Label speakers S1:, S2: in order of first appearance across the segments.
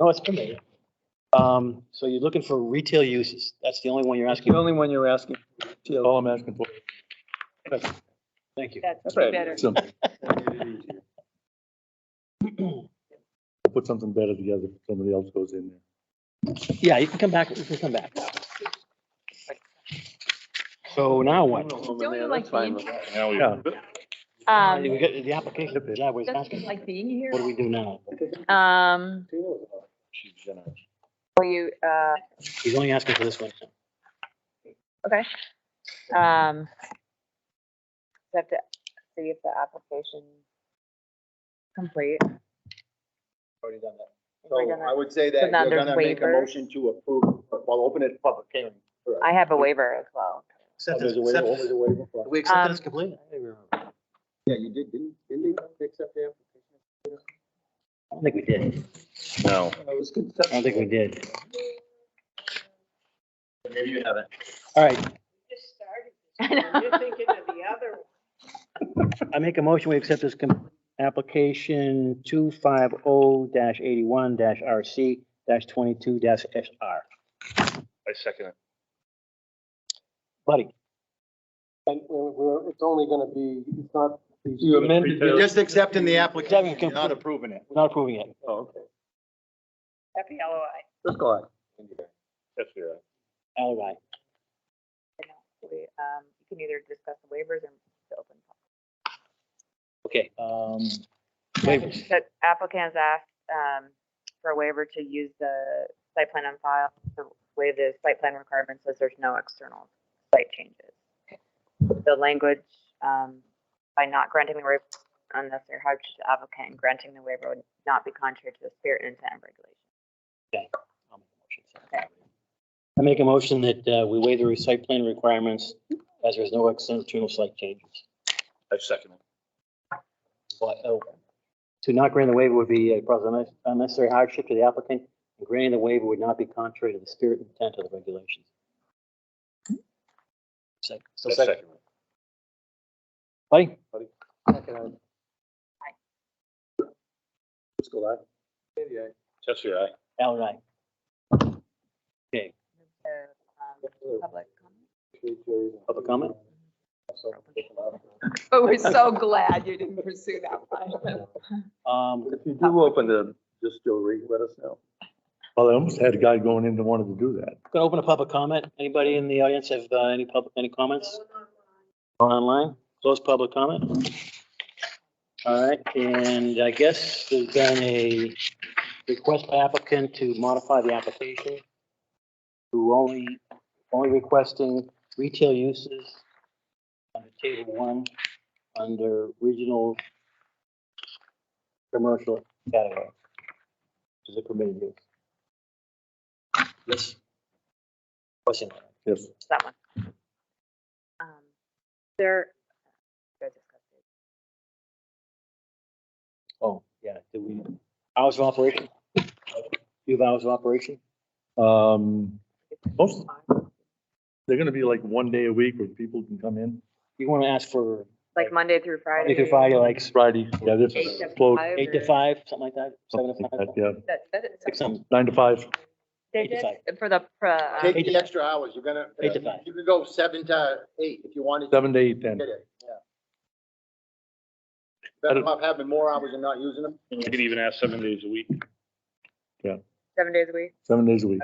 S1: No, it's permitted. Um, so you're looking for retail uses. That's the only one you're asking.
S2: The
S1: for.
S2: only one you're asking.
S3: All I'm asking for,
S1: Thank you.
S2: That's
S4: That's
S2: right.
S4: better.
S3: simple. Put something better together, somebody else goes in there.
S1: Yeah, you can come back, you can come back. So now what?
S4: Don't you like being,
S3: Yeah.
S1: We
S4: um,
S1: got the application, yeah, we're
S4: don't you
S1: asking,
S4: like being here?
S1: what do we do now?
S4: Um,
S3: She's generous.
S4: will you, uh,
S1: He's only asking for this one.
S4: okay. Um, you have to see if the application complete.
S1: Already done that.
S5: So
S4: We're gonna-
S5: I would say
S4: so
S5: that
S4: now
S5: you're
S4: there's
S5: gonna make a
S4: waivers.
S5: motion to approve, well, open it public hearing. first.
S4: I have a waiver as well.
S5: Oh, there's a waiver, oh, there's a waiver for-
S1: We
S4: accept
S1: accept
S4: it as
S1: this completely? I
S5: Yeah, you did, didn't, didn't they accept the application?
S1: don't think we did.
S3: No.
S5: It was
S1: I don't think we did.
S5: Maybe you haven't.
S1: All right,
S6: just started.
S4: I
S6: this one.
S4: know.
S6: You're thinking of the other one.
S1: I make a motion, we accept this com- application two five oh dash eighty-one dash RC dash twenty-two dash SR.
S3: I second it.
S1: Buddy,
S7: And we're, we're- it's only gonna be, it's not.
S2: You amended
S5: You're
S2: it.
S5: just accepting the application,
S1: Devin,
S5: you're not approving it.
S1: we're not approving it.
S5: Oh, okay.
S6: Happy LOI.
S2: Just go on.
S3: That's right.
S1: All right.
S4: We, Um, you can either discuss the waivers or the open.
S1: Okay, um, waivers.
S4: That applicants asked, um, for a waiver to use the site plan on file, to waive the site plan requirements as there's no external site changes. The language, um, by not granting the waiver unnecessary hardship to the applicant and granting the waiver would not be contrary to the spirit and intent of regulation.
S1: I'll make a motion. I make a motion that uh, we waive the recite plan requirements as there's no external site changes.
S3: I second it.
S1: But, uh, To not grant the waiver would be a cause of unne- unnecessary hardship to the applicant. and Granting the waiver would not be contrary to the spirit and intent of the regulations. Sec- So second, buddy?
S2: Just go on.
S3: That's right.
S1: Al and I.
S4: So, um, public comment?
S1: Public comment?
S4: But we're so glad you didn't pursue that one.
S1: Um,
S2: If you do open the, just go read, let us know.
S3: Well, I almost had a guy going in that wanted to do that.
S1: Gonna open a public comment. Anybody in the audience have uh, any public, any comments? Online, close public comment. All right, and I guess there's been a request by applicant to modify the application to only, only requesting retail uses under table one, under regional commercial category, which is a permitted use. Yes. Question.
S3: Yes.
S4: It's that one. Um, There. you guys discussed it.
S1: Oh, yeah, did we, hours of operation? You have hours of operation?
S3: Um, most,
S4: Fine.
S3: they're gonna be like one day a week where people can come in.
S1: You want to ask for
S4: Like Monday through Friday.
S1: Monday through Friday, like
S3: Friday, yeah, this
S4: Eight
S3: is
S4: to
S3: close.
S4: five
S1: eight to
S4: or-
S1: five, something like that, seven to
S3: something like
S1: five,
S3: that, Yeah,
S4: That, that is.
S1: six, something,
S3: nine to five.
S4: They
S1: eight to
S4: did
S1: five.
S4: it for the, pro- uh,
S5: Take the extra hours, you're gonna,
S1: Eight to five.
S5: you could go seven to eight if you wanted. to
S3: Seven to eight then.
S5: Get it, yeah. Better off having more hours and not using them.
S8: You can even ask seven days a week.
S4: seven days a week.
S3: seven days a week.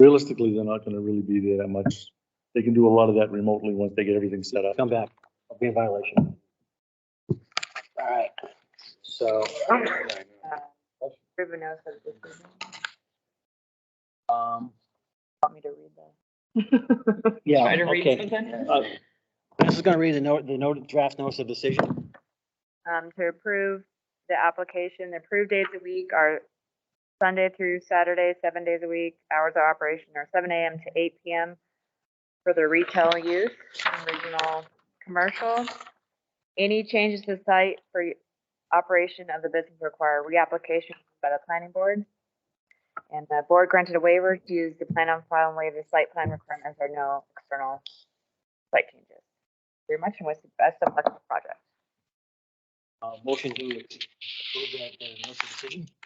S3: Realistically, they're not gonna really be there that much. They can do a lot of that remotely once they get everything set up.
S1: come back, I'll be in violation. All right, so,
S4: Uh, Ruben knows that this is,
S1: um,
S4: want me to read that?
S1: yeah,
S4: Try to read
S1: okay.
S4: something?
S1: Uh, This is going to read the note, the note, draft notice of decision.
S4: um, to approve the application. The approved days a week are Sunday through Saturday, seven days a week. Hours of operation are seven AM to eight PM for the retail use and regional commercial. Any changes to site for operation of the business require reapplication by the planning board. And the board granted a waiver to use the plan on file and waive the site plan requirements There are no external site changes. Very much and wish the best of luck with the project.
S1: Uh, motion to approve that, uh, notice of decision?